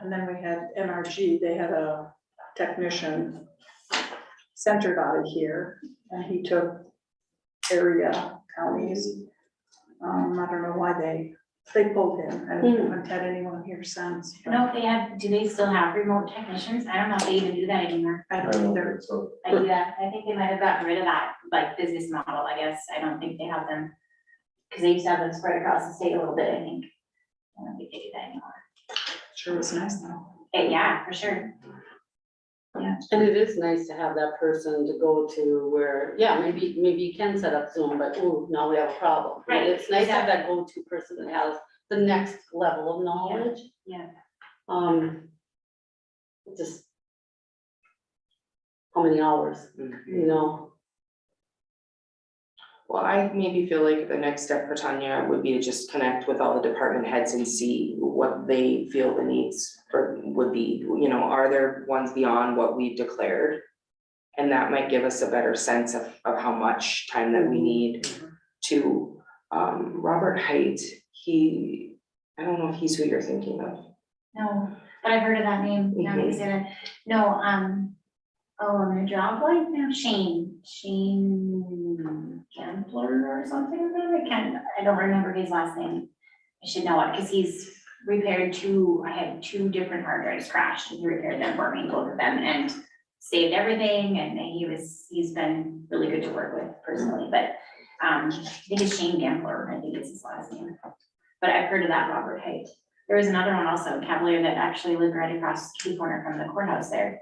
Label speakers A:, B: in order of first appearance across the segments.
A: and then we had NRG, they had a technician centered out of here, and he took area counties. Um, I don't know why they, they pulled him, I haven't had anyone here since. but
B: No, they have, do they still have remote technicians? I don't know if they even do that anymore.
A: I
C: I
A: don't
C: don't
A: think they're,
C: think so.
B: I do that, I think they might have gotten rid of that, like, business model, I guess. I don't think they have them. Cause they used to have them spread across the state a little bit, I think. I don't think they do that anymore.
A: sure was nice though.
B: Eh, yeah, for sure.
D: And it is nice to have that person to go to where, yeah, maybe, maybe you can set up Zoom, but ooh, now we have a problem.
B: Right,
D: It's nice to have that go-to person that has the next level of knowledge.
B: yeah.
D: Um. Just. How many hours, you know,
E: Well, I maybe feel like the next step for Tanya would be to just connect with all the department heads and see what they feel the needs for would be, you know, are there ones beyond what we've declared? And that might give us a better sense of of how much time that
D: Mm-hmm.
E: we need to, um, Robert Height, he, I don't know if he's who you're thinking of.
B: No, but I've heard of that name, now that you said it. No, um, oh, I'm gonna draw a blank now, Shane, Shane Gambler or something, I can't, I don't remember his last name. I should know it, cause he's repaired two, I had two different hard drives crashed, and he repaired them for me, both of them, and saved everything, and he was, he's been really good to work with personally, but, um, I think it's Shane Gambler, I think is his last name. But I've heard of that Robert Haight. There was another one also, Cavalier, that actually lived right across the corner from the courthouse there.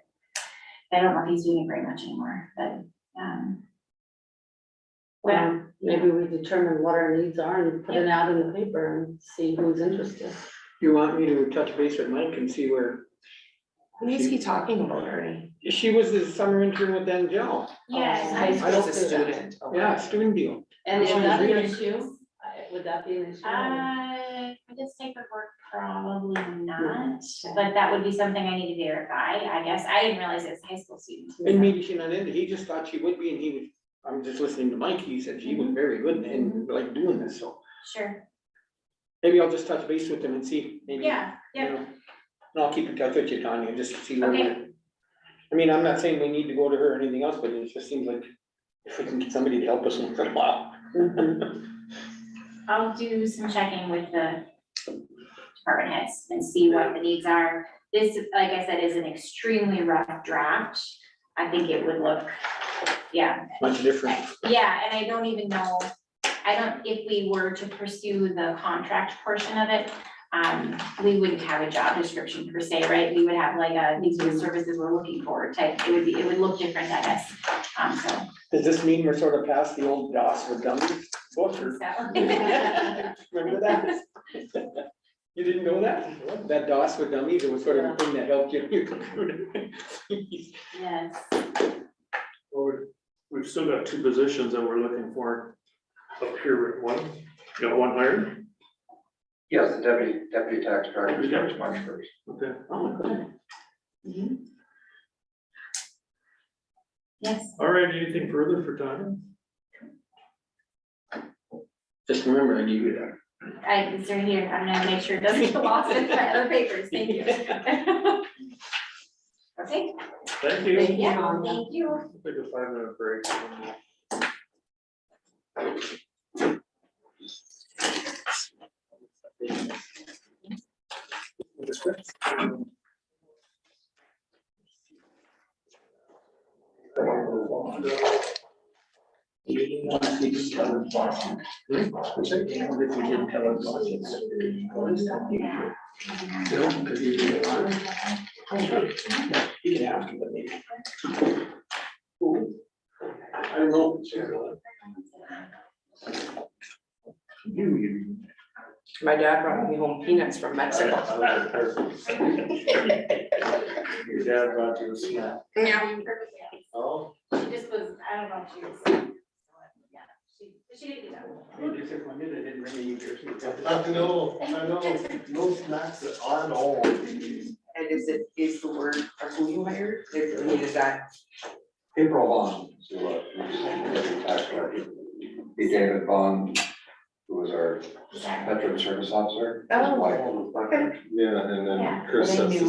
B: I don't know if he's doing it very much anymore, but, um. Well,
D: well, Um, maybe we determine what our needs are and put an ad in the paper and see who's interested.
F: You want me to touch base with Mike and see where,
E: Who is he talking about, Ernie?
F: she was the summer intern with Angel,
B: yes,
D: High
B: I-
D: school
E: He's a
D: student.
E: student. okay.
F: yeah, student deal.
D: And is
F: She's
D: that an
F: reading.
D: issue? I- Would that be an issue?
B: uh, for this type of work, probably not, but that would be something I need to verify, I guess. I didn't realize it's high school students.
F: And maybe she not into, he just thought she would be and he was, I'm just listening to Mike, he said she was very good and like doing this, so.
B: Sure,
F: Maybe I'll just touch base with him and see, maybe.
B: yeah,
F: you
B: yeah,
F: know. And I'll keep in touch with you, Tanya, just to see where
B: Okay.
F: we're. I mean, I'm not saying we need to go to her or anything else, but it just seems like if we can get somebody to help us once in a while.
D: Mhm.
B: I'll do some checking with the department heads and see what the needs are. This, like I said, is an extremely rough draft. I think it would look, yeah,
F: Much different.
B: yeah, and I don't even know, I don't, if we were to pursue the contract portion of it, um, we wouldn't have a job description per se, right? We would have like a, these are the services we're looking for type, it would be, it would look different, I guess. Um, so,
F: Does this mean we're sort of past the old DOS for dummies book or?
B: so.
F: Remember that? You didn't know that? That DOS for dummies, it was sort of a thing that helped you. your computer.
B: Yes,
G: Well, we- we've still got two positions that we're looking for up here, one, got one hired,
H: Yes, the deputy, deputy tax director
G: Deputy
H: starts
G: tax.
H: March first.
G: okay,
D: Oh, good.
B: yes,
G: all right, anything further for Tanya?
F: Just remember, I gave you that.
B: I, it's right here, I'm gonna make sure it doesn't get lost in my other papers, thank you. Okay,
G: Thank you.
D: Thank you.
B: yeah, thank you.
G: Take a five minute break.
F: You can ask him, but maybe. I don't know.
E: My dad brought me home peanuts from Mexico.
G: Your dad brought you a snack.
F: Oh.
B: She just was, I don't know if she was. yeah, She, she did get
F: Maybe it took my minute, I didn't remember you.
G: Uh,
C: I know, I know, no snacks at all.
E: And is it, is the word of who you hired, is, I mean, is that,
H: April Vaughn, is who, uh, who's the deputy tax director. Be David Vaughn, who was our
B: that.
H: veteran service officer.
E: Oh,
H: Wife.
C: Yeah, and
B: Yeah.
C: then Chris
E: They
C: has
E: knew.
C: to